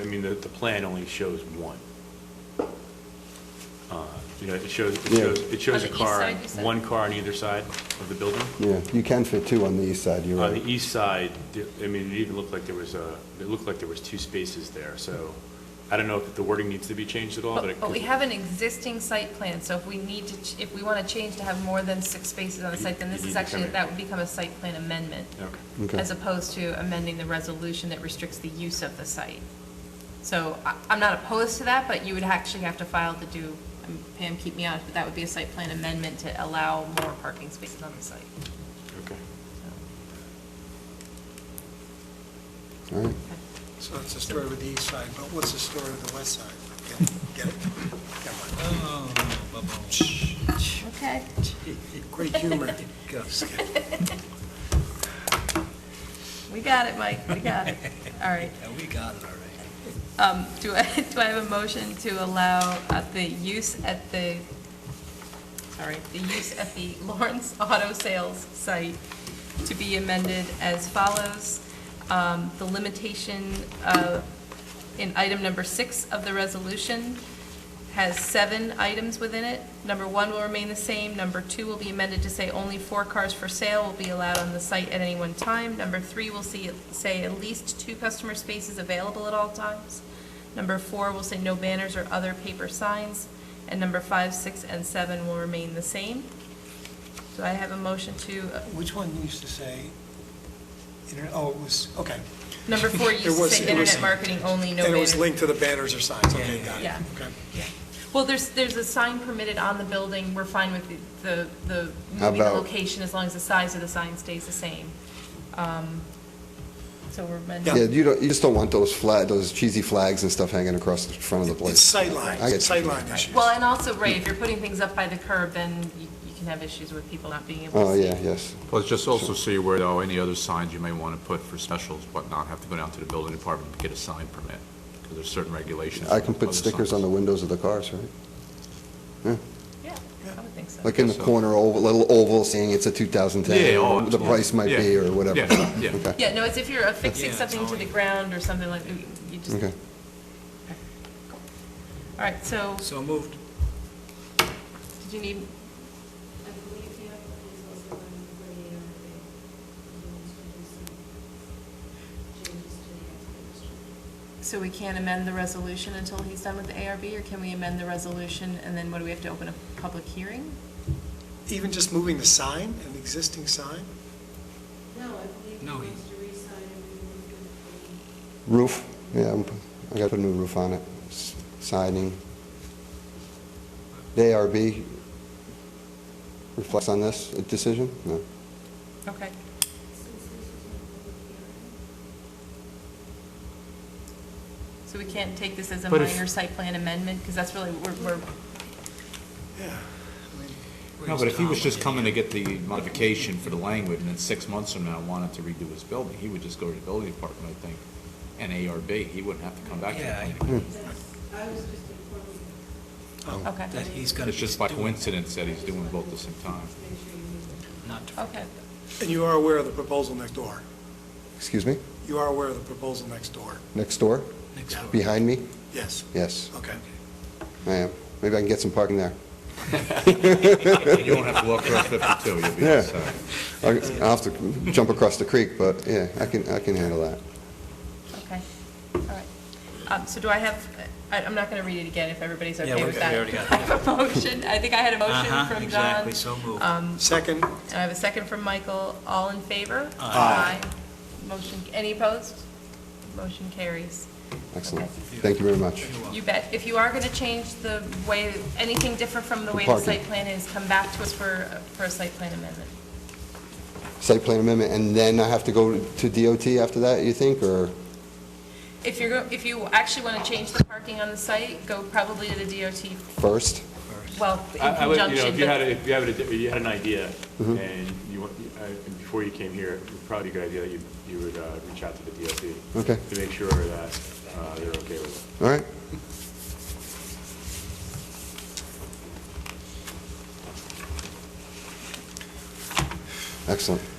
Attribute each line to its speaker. Speaker 1: I mean, the, the plan only shows one. Uh, You know, it shows, it
Speaker 2: Yeah.
Speaker 1: shows, it shows
Speaker 3: On
Speaker 1: a
Speaker 3: the east
Speaker 1: car,
Speaker 3: side, you said?
Speaker 1: one car on either side of the building.
Speaker 2: Yeah, you can fit two on the east side, you're
Speaker 1: On the
Speaker 2: right.
Speaker 1: east side, the- I mean, it even looked like there was a, it looked like there was two spaces there, so I don't know if the wording needs to be changed at all, but it
Speaker 3: But but
Speaker 1: could.
Speaker 3: we have an existing site plan, so if we need to, ch- if we want to change to have more than six spaces on the site, then
Speaker 1: You
Speaker 3: this
Speaker 1: need
Speaker 3: is
Speaker 1: to
Speaker 3: actually,
Speaker 1: come in.
Speaker 3: that would become a site plan amendment,
Speaker 1: Okay.
Speaker 2: Okay.
Speaker 3: as opposed to amending the resolution that restricts the use of the site. So I- I'm not opposed to that, but you would actually have to file to do, um, Pam, keep me honest, but that would be a site plan amendment to allow more parking spaces on the site.
Speaker 1: Okay.
Speaker 2: All right.
Speaker 4: So it's the story with the east side, but what's the story with the west side? Get it, get it.
Speaker 3: Oh, Okay.
Speaker 4: Come on. Great humor. Go.
Speaker 3: We got it, Mike, we got it. All right.
Speaker 4: Yeah, we got it all right.
Speaker 3: Um, Do I, do I have a motion to allow uh, the use at the, sorry, the use at the Lawrence Auto Sales site to be amended as follows? Um, The limitation uh, in item number six of the resolution has seven items within it. Number one will remain the same. Number two will be amended to say only four cars for sale will be allowed on the site at any one time. Number three will see, say at least two customer spaces available at all times. Number four will say no banners or other paper signs. And number five, six, and seven will remain the same. So I have a motion to, uh,
Speaker 4: Which one used to say, internet, oh, it was, okay.
Speaker 3: number four used
Speaker 4: It
Speaker 3: to
Speaker 4: was-
Speaker 3: say
Speaker 4: it was-
Speaker 3: internet marketing only, no
Speaker 4: And it was
Speaker 3: banners.
Speaker 4: linked to the banners or signs, okay, got it.
Speaker 3: Yeah.
Speaker 4: Okay.
Speaker 3: Well, there's, there's a sign permitted on the building, we're fine with the- the, the,
Speaker 2: How
Speaker 3: moving the
Speaker 2: about-
Speaker 3: location as long as the size of the sign stays the same. Um, So we're amending.
Speaker 2: Yeah, you don't, you just don't want those flag, those cheesy flags and stuff hanging across the front of the place.
Speaker 4: It's sightline,
Speaker 2: I get you.
Speaker 4: sightline issues.
Speaker 3: Well, and also, Ray, if you're putting things up by the curb, then you you can have issues with people not being able
Speaker 2: Oh,
Speaker 3: to see.
Speaker 2: yeah, yes.
Speaker 5: Well, just also see where, though, any other signs you may want to put for specials, whatnot, have to go down to the building department to get a sign permit, because there's certain regulations.
Speaker 2: I can put
Speaker 5: Other
Speaker 2: stickers on
Speaker 5: signs.
Speaker 2: the windows of the cars, right?
Speaker 3: Yeah, I would think so.
Speaker 2: Like in the
Speaker 5: So-
Speaker 2: corner, oval, little oval saying it's a 2010. or
Speaker 5: Yeah, oh,
Speaker 2: whatever The
Speaker 5: yeah.
Speaker 2: price might be,
Speaker 5: Yeah.
Speaker 2: or whatever.
Speaker 5: Yeah, yeah.
Speaker 2: Okay.
Speaker 3: Yeah, no, it's if you're affixing
Speaker 4: Yeah, it's
Speaker 3: something to
Speaker 4: only-
Speaker 3: the ground or something like, you you just, all
Speaker 2: Okay.
Speaker 3: right, so,
Speaker 4: So moved.
Speaker 3: did you need,
Speaker 6: I believe the applicant is also on the coordinator, they want to do some changes to the application.
Speaker 3: so we can't amend the resolution until he's done with the ARB, or can we amend the resolution, and then what, do we have to open a public hearing?
Speaker 4: Even just moving the sign, an existing sign?
Speaker 6: No, I believe he
Speaker 7: No, he-
Speaker 6: wants to re-sign and remove it from
Speaker 2: Roof, yeah, I'm- I gotta put a new roof on it, S- siding. The ARB reflects on this decision? No.
Speaker 3: Okay.
Speaker 6: since this is a public hearing.
Speaker 3: So we can't take this as a
Speaker 5: But if-
Speaker 3: minor site plan amendment, because that's really, we're, we're,
Speaker 4: Yeah. I mean,
Speaker 5: No, but if he was just coming to get the modification for the language, and then six months from now wanted to redo his building, he would just go to the building department, I think, and ARB, he wouldn't have to come back to the
Speaker 7: Yeah, I-
Speaker 5: planning.
Speaker 2: Hmm.
Speaker 6: That's, I was just informing you,
Speaker 4: oh,
Speaker 3: okay,
Speaker 7: That he's gonna
Speaker 5: It's just by
Speaker 7: be doing-
Speaker 5: coincidence that he's doing both at the same time.
Speaker 6: make sure you move it.
Speaker 7: Not to
Speaker 3: okay.
Speaker 4: And you are aware of the proposal next door?
Speaker 2: Excuse me?
Speaker 4: You are aware of the proposal next door?
Speaker 2: Next door?
Speaker 7: next door.
Speaker 2: Behind me?
Speaker 4: Yes,
Speaker 2: Yes,
Speaker 4: okay.
Speaker 2: I am. Maybe I can get some parking there.
Speaker 5: You won't have to walk across 52, you'll be
Speaker 2: Yeah.
Speaker 5: outside.
Speaker 2: I'll I'll have to jump across the creek, but yeah, I can, I can handle that.
Speaker 3: Okay, all right. Um, So do I have, I- I'm not going to read it again if everybody's okay
Speaker 7: Yeah, we're
Speaker 3: with
Speaker 7: good.
Speaker 3: that.
Speaker 7: We already got
Speaker 3: I have a motion, I think I had a motion
Speaker 7: Uh-huh,
Speaker 3: from John.
Speaker 7: exactly, so moved.
Speaker 3: Um,
Speaker 4: Second,
Speaker 3: And I have a second from Michael. All in favor?
Speaker 4: Aye.
Speaker 3: Motion, any opposed? Motion carries.
Speaker 2: Excellent. Thank you very much.
Speaker 3: You bet. If you are going to change the way, anything different from the
Speaker 2: The
Speaker 3: way the
Speaker 2: parking.
Speaker 3: site plan is, come back to us for, for a site plan amendment.
Speaker 2: Site plan amendment, and then I have to go to DOT after that, you think, or?
Speaker 3: If you're, go- if you actually want to change the parking on the site, go probably to the DOT,
Speaker 2: first.
Speaker 3: well, in
Speaker 1: I I would, you know,
Speaker 3: conjunction,
Speaker 1: if you had, a-
Speaker 3: but
Speaker 1: if you had, a di- you had an idea,
Speaker 2: Mm-hmm.
Speaker 1: and you, want- I- and before you came here, it would probably be a good idea, you, you would uh, reach out to the DOT.
Speaker 2: Okay.
Speaker 1: To make sure that uh, they're okay with it.
Speaker 2: All right. Excellent.